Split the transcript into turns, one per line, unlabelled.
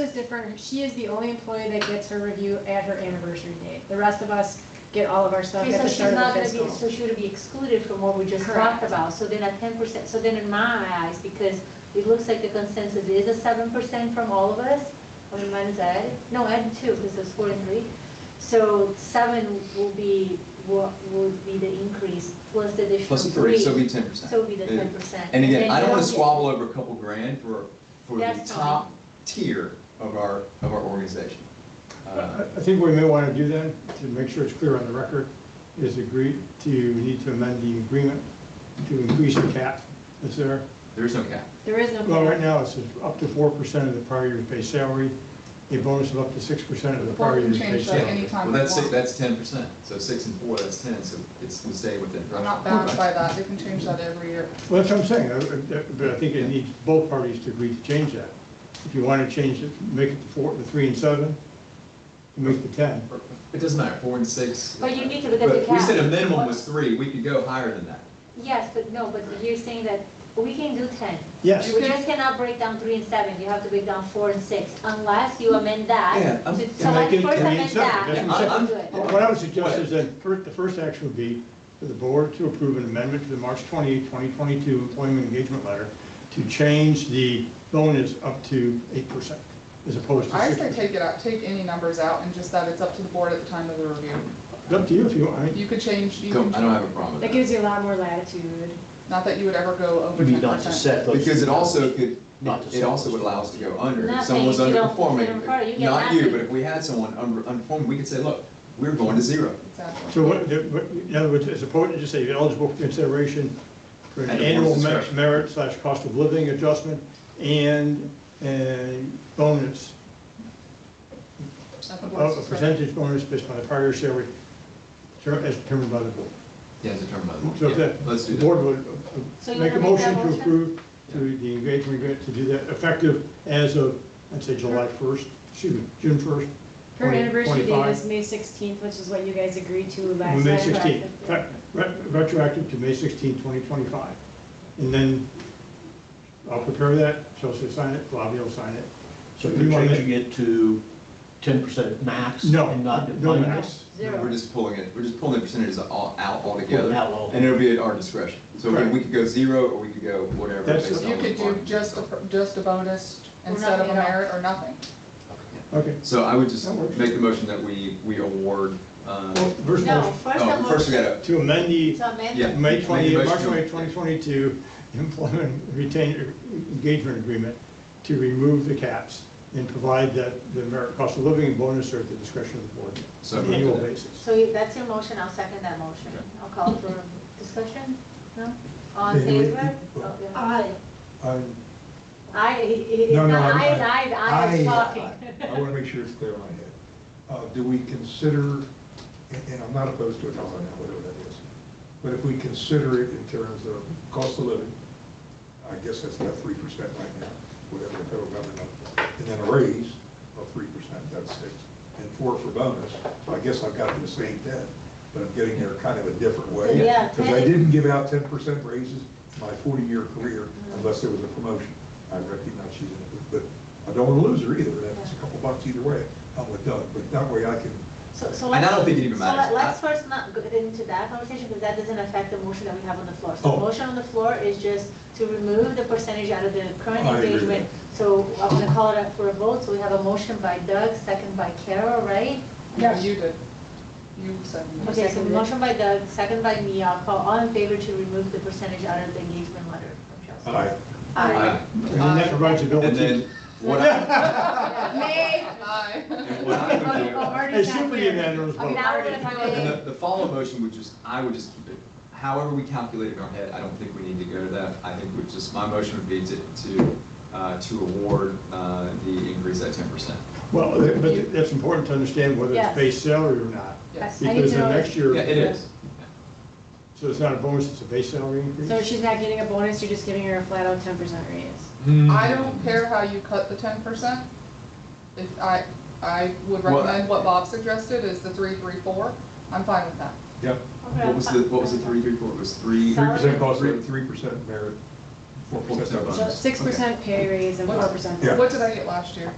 is different. She is the only employee that gets her review at her anniversary date. The rest of us get all of our stuff
Okay,
at
so
the
she's
start
not
of the
gonna be,
fiscal.
so she would be excluded from what we just
Correct.
talked about, so then a ten percent, so then in my eyes, because it looks like the consensus is a seven percent from all of us, I mean, mine's Ed, no, Ed too, because it's four and three, so seven will be, what would be the increase, plus the additional
Plus
three.
three, so it'd be ten percent.
So it'll be the ten percent.
And again, I don't want to squabble over a couple grand for, for the
That's fine.
top tier of our, of our organization.
I
Uh,
I think what we may want to do then, to make sure it's clear on the record, is agree to, we need to amend the agreement to increase the cap. Is there,
There is no cap.
There is no.
well, right
cap.
now, it's up to four percent of the prior year's base salary, a bonus of up to six percent of the
Well,
prior
we
year's
can
base
change that
salary.
anytime
Well,
we
that's, six-
want.
that's ten percent, so six and four, that's ten, so it's, we stay within.
We're not bound by that, we can change that every year.
Well, that's what I'm saying, I- I- but I think it needs both parties to agree to change that. If you want to change it, make it the four, the three and seven, and make the ten.
It doesn't matter, four and six.
But you need to look at
But
the
We said a
cap.
minimum was three, we could go higher than that.
Yes, but no, but you're saying that we can do ten.
Yes.
We just cannot break down three and seven, you have to break down four and six, unless you amend that.
Yeah, I'm-
to-
Can
So
I
let's
get
first
three and
amend
seven?
that.
That's
and
what I'm
then
saying.
do it.
I'm-
What I would suggest is that fir- the first action would be for the board to approve an amendment to the March 28, 2022 employment engagement letter to change the bonus up to 8% as opposed to
I say
6%.
take it out, take any numbers out and just that it's up to the board at the time of the review.
It's up to you if you want. I mean,
You could change, you
Go-
can,
I don't have a problem with
That
that.
gives you a lot more latitude.
not that you would ever go over
Would be
ten
not to
percent.
set those.
Because it also could,
Not to
it also
sell.
would allow us to go under. If
Nothing,
someone was
if you don't
underperforming,
consider part, you get
not you,
nothing.
but if we had someone under- underperforming, we could say, look, we're going to zero.
So what, the- what- in other words, as opposed to just say eligible for consideration for an
And the
annual
board's
me-
discretion.
merit slash cost of living adjustment and a bonus, a a percentage bonus based on the prior salary ter- as determined by the board.
Yeah, as a term of.
So if
Yeah,
that,
Let's do
the
that.
board would
So
uh,
you
make a
wanna make that
motion to
motion?
approve to the engagement agreement to do that effective as of, I'd say July 1st, excuse me, June 1st.
Her
20-
anniversary date
25.
is May sixteenth, which is what you guys agreed to last
May
time.
16th, Fact- re- retroactive to May 16th, 2025. And then I'll prepare that, Chelsea will sign it, Flavia will sign it.
So
You
you're
wanna-
changing it to ten percent max?
No,
And not
no
defined?
max.
Zero.
We're just pulling it, we're just pulling the percentages all, out altogether.
Pulling out all.
And it'll be at our discretion. So again,
Correct.
we could go zero or we could go whatever.
That's-
based on
You could do
performance.
just a, per- just a bonus
Or
instead of a
nothing at all.
merit or nothing.
Okay.
So I would just
That works.
make the motion that we, we award, um,
Well, first
No,
motion,
first
oh,
I'm.
first we gotta,
to amend the
So amend.
yeah.
May
make a
20,
motion
March
to-
20, 2022 employment retain, engagement agreement to remove the caps and provide that the merit cost of living and bonus are at the discretion of the board
So
on an
moved.
annual basis.
So you- that's your motion, I'll second that motion.
Okay.
I'll call for discussion, no? All in
Yeah, you-
favor? Okay. Aye.
I'm-
Aye, it- it- it's
No, no,
not
I'm-
aye, it's aye, the aye is
I-
talking.
I want to make sure it's clear in my head. Uh, Do we consider, and and I'm not opposed to it, I'll find out whatever that is, but if we consider it in terms of cost of living, I guess that's about three percent right now, whatever the federal government, and then a raise of three percent, that's six, and four for bonus, so I guess I've got to the same ten, but I'm getting there kind of a different way.
Yeah,
Because I
10.
didn't give out ten percent raises my forty-year career unless there was a promotion. I recognize she's in it, but I don't want to lose her either, and it's a couple bucks either way, I'm with Doug, but that way I can,
So, so.
And I
let's-
don't think it even
so let-
matters.
let's first not get into that conversation, because that doesn't affect the motion that we have on the floor. So the
Oh.
motion on the floor is just to remove the percentage out of the current
Oh,
I agree with
engagement. So I'm gonna call it up for a vote, so we have a motion by Doug, second by Carol, right?
Yeah, you did. You said. you
Okay, so
seconded it.
motion by Doug, second by me, I'll call all in favor to remove the percentage out of the engagement letter from Chelsea.
I,
Aye.
And then that provides
And
ability,
then what I,
Nay.
Aye.
and what I would do.
a super unanimous
Okay,
vote.
now we're gonna talk
And
about.
the, the follow motion would just, I would just keep it, however we calculate it in our head, I don't think we need to go to that. I think we just, my motion would be to, to, uh, to award, uh, the increase at ten percent.
Well, uh, but that's important to understand whether
Yes.
it's base salary or not.
Yes.
I need
Because
to
the
know-
next year.
Yeah, it is.
So it's not a bonus, it's a base salary increase?
So she's not getting a bonus, you're just giving her a flat out ten percent raise.
Hmm.
I don't care how you cut the ten percent. If I, I would
Well,
recommend what Bob suggested is the three, three, four. I'm fine with that.
yep,
What was the, what was the three, three, four, it was three?
three percent cost, three percent merit, four
Four percent
percent bonus.
bonus.
Six percent Uh, pay raise and four percent.
Yeah.
What did I get last year?